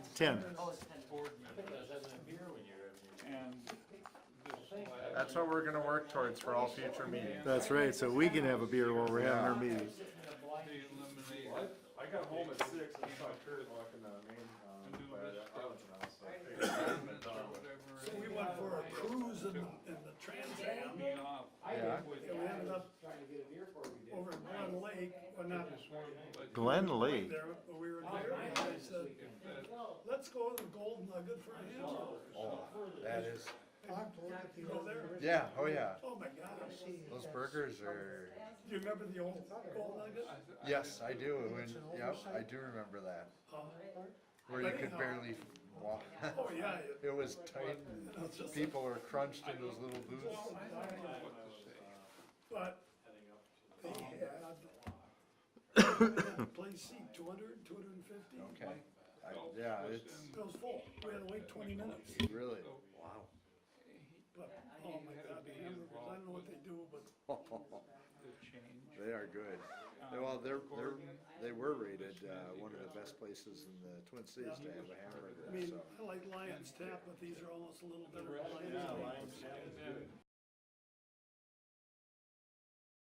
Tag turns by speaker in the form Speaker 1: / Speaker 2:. Speaker 1: Ten.
Speaker 2: That's what we're gonna work towards for all future meetings.
Speaker 1: That's right, so we can have a beer while we're having our meeting.
Speaker 2: I got home at six and saw Kurt walking down Main, um,
Speaker 3: Do
Speaker 2: but
Speaker 3: this.
Speaker 2: I was out, so I figured-
Speaker 4: So we went for a cruise in, in the Trans Am, and
Speaker 2: Yeah.
Speaker 4: we ended up over at Glen Lake, well, not
Speaker 1: Glen
Speaker 4: right
Speaker 1: Lake,
Speaker 4: there, but we were there, and I said, let's go to the Golden Nugget for a hamburger.
Speaker 2: Oh, That is,
Speaker 4: You go there?
Speaker 2: yeah, oh yeah,
Speaker 4: Oh my gosh, do
Speaker 2: those burgers are,
Speaker 4: you remember the old Golden Nugget?
Speaker 2: yes, I do, and, yep, I do remember that,
Speaker 4: Uh,
Speaker 2: where you could barely walk.
Speaker 4: Oh, yeah, it-
Speaker 2: It was tight, and
Speaker 4: it's just,
Speaker 2: people were crunched in those little booths.
Speaker 4: but they had, place seat, two hundred, two hundred and fifty,
Speaker 2: Okay, I, yeah, it's
Speaker 4: it was full, we had to wait twenty minutes.
Speaker 2: really,
Speaker 4: But, oh my god, the hamburgers, I don't know what they do, but
Speaker 2: they are good. They- Well, they're, they're, they were rated, uh, one of the best places in the Twin Cities to have a
Speaker 4: I
Speaker 2: hamburger,
Speaker 4: mean,
Speaker 2: so.
Speaker 4: I like Lion's Tap, but these are almost a little better than Lion's Tap.